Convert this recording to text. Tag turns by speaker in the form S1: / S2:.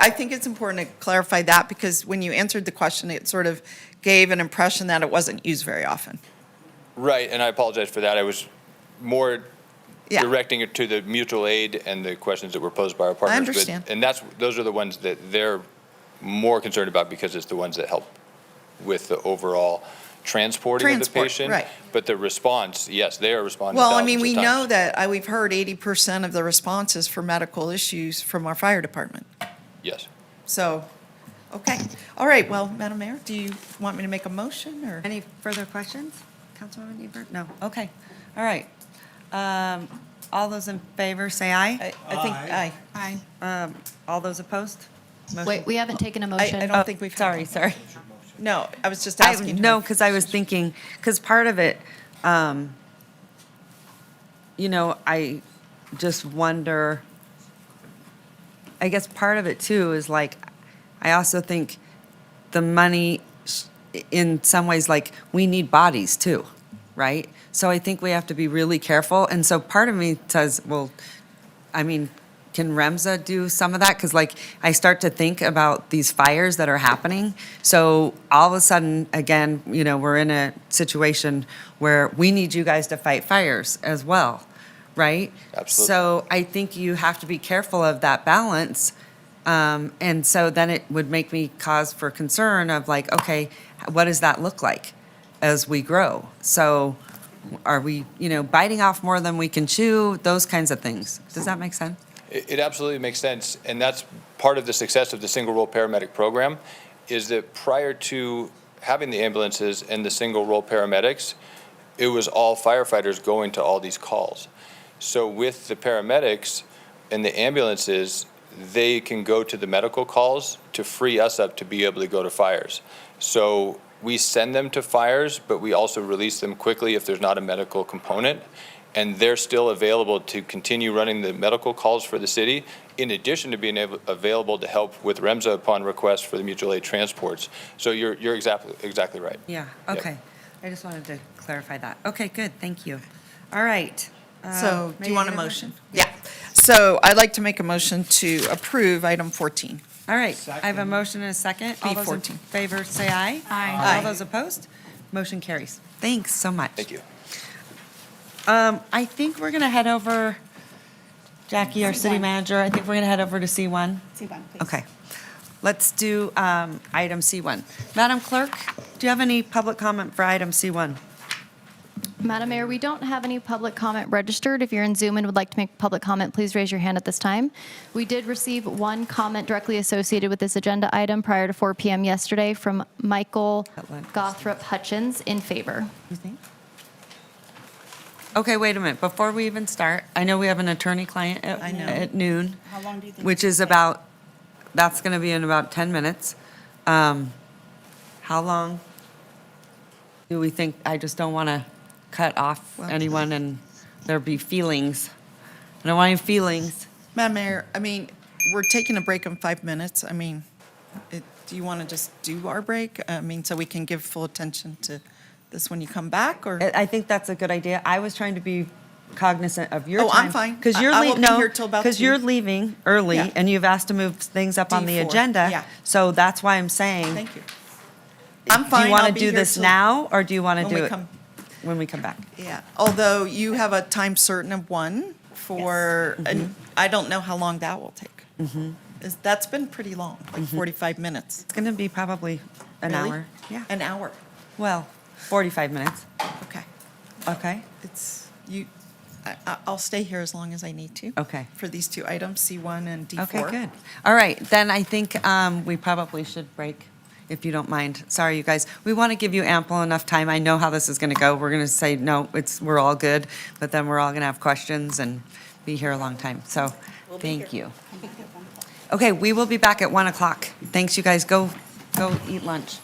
S1: I think it's important to clarify that because when you answered the question, it sort of gave an impression that it wasn't used very often.
S2: Right, and I apologize for that. I was more
S1: Yeah.
S2: directing it to the mutual aid and the questions that were posed by our partners. but-
S1: understand.
S2: And that's, those are the ones that they're more concerned about because it's the ones that help with the overall transporting of the
S1: Transport,
S2: patient.
S1: right.
S2: But the response, yes, they are responding
S1: Well, I
S2: thousands of
S1: mean,
S2: times.
S1: we know that, I, we've heard eighty percent of the responses for medical issues from our fire department.
S2: Yes.
S1: So, okay. All right, well, Madam Mayor, do you want me to make a motion or?
S3: Any further questions? Councilwoman Ebert? No, okay, all right. Um, All those in favor, say aye.
S1: I I think, aye.
S4: Aye.
S3: Um, All those opposed? Motion-
S4: Wait, we haven't taken a motion.
S1: I
S3: Oh,
S1: don't think we've. had
S3: Sorry,
S1: one.
S3: sorry.
S1: No, I was just
S3: I-
S1: asking. her.
S3: No, because I was thinking, because part of it, um, you know, I just wonder, I guess part of it too is like, I also think the money, s- in some ways, like, we need bodies too, right? So I think we have to be really careful. And so part of me says, well, I mean, can Remza do some of that? Because like, I start to think about these fires that are happening. So all of a sudden, again, you know, we're in a situation where we need you guys to fight fires as well, right?
S2: Absolutely.
S3: So I think you have to be careful of that balance. Um, and so then it would make me cause for concern of like, okay, what does that look like as we grow? So are we, you know, biting off more than we can chew? Those kinds of things. Does that make sense?
S2: It it absolutely makes sense, and that's part of the success of the single-role paramedic program, is that prior to having the ambulances and the single-role paramedics, it was all firefighters going to all these calls. So with the paramedics and the ambulances, they can go to the medical calls to free us up to be able to go to fires. So we send them to fires, but we also release them quickly if there's not a medical component. And they're still available to continue running the medical calls for the city, in addition to being able, available to help with REMSA upon request for the mutual aid transports. So you're, you're exactly, exactly right.
S3: Yeah,
S2: Yep.
S3: okay. I just wanted to clarify that. Okay, good, thank you. All right. Uh,
S1: So, do
S3: may I
S1: you want a
S3: get
S1: motion? Yeah. So I'd like to make a motion to approve item fourteen.
S3: All right, I have a motion and a second. All those in
S1: B14.
S3: favor, say aye.
S4: Aye.
S3: All those opposed? Motion carries. Thanks so much.
S2: Thank you.
S3: Um, I think we're gonna head over, Jackie, our city manager, I think we're gonna head over to C1.
S4: C1, please.
S3: Okay. Let's do, um, item C1. Madam Clerk, do you have any public comment for item C1?
S4: Madam Mayor, we don't have any public comment registered. If you're in Zoom and would like to make public comment, please raise your hand at this time. We did receive one comment directly associated with this agenda item prior to 4 PM yesterday from Michael
S3: Atlanta.
S4: Gothrop Hutchins in favor.
S3: Okay, wait a minute. Before we even start, I know we have an attorney-client at
S1: I know.
S3: at noon.
S5: How long do you think it's
S3: Which is
S5: gonna take?
S3: about, that's going to be in about 10 minutes. Um, How long do we think, I just don't want to cut off anyone and there be feelings. I don't want any feelings.
S1: Madam Mayor, I mean, we're taking a break in five minutes. I mean, it- do you want to just do our break? I mean, so we can give full attention to this when you come back, or?
S3: I I think that's a good idea. I was trying to be cognizant of your
S1: Oh,
S3: time.
S1: I'm fine.
S3: Because
S1: I-
S3: you're,
S1: I won't
S3: lea-
S1: be
S3: no,
S1: here till about
S3: because
S1: two.
S3: you're leaving early
S1: Yeah.
S3: and you've asked to move things up on the
S1: D4,
S3: agenda.
S1: yeah.
S3: So that's why I'm saying.
S1: Thank you. I'm fine.
S3: Do you
S1: I'll
S3: want
S1: be
S3: to do
S1: here
S3: this
S1: till-
S3: now, or do you want
S1: when
S3: to
S1: we
S3: do it
S1: come-
S3: when we come back?
S1: Yeah, although you have a time certain of one for,
S3: Mm-hmm.
S1: and I don't know how long that will take. Is- That's been pretty long, like 45 minutes.
S3: It's going to be probably Mm-hmm. an
S1: Really?
S3: hour. Yeah.
S1: An hour,
S3: well, 45 minutes.
S1: okay.
S3: Okay.
S1: It's, you, I- I- I'll stay here as long as I need to.
S3: Okay.
S1: For these two items, C1 and D4.
S3: Okay, good. All right, then I think um, we probably should break, if you don't mind. Sorry, you guys. We want to give you ample enough time. I know how this is going to go. We're going to say, no, it's, we're all good, but then we're all going to have questions and be here a long time. So, thank you. Okay, we will be back at 1 o'clock. Thanks, you guys. Go, go eat lunch.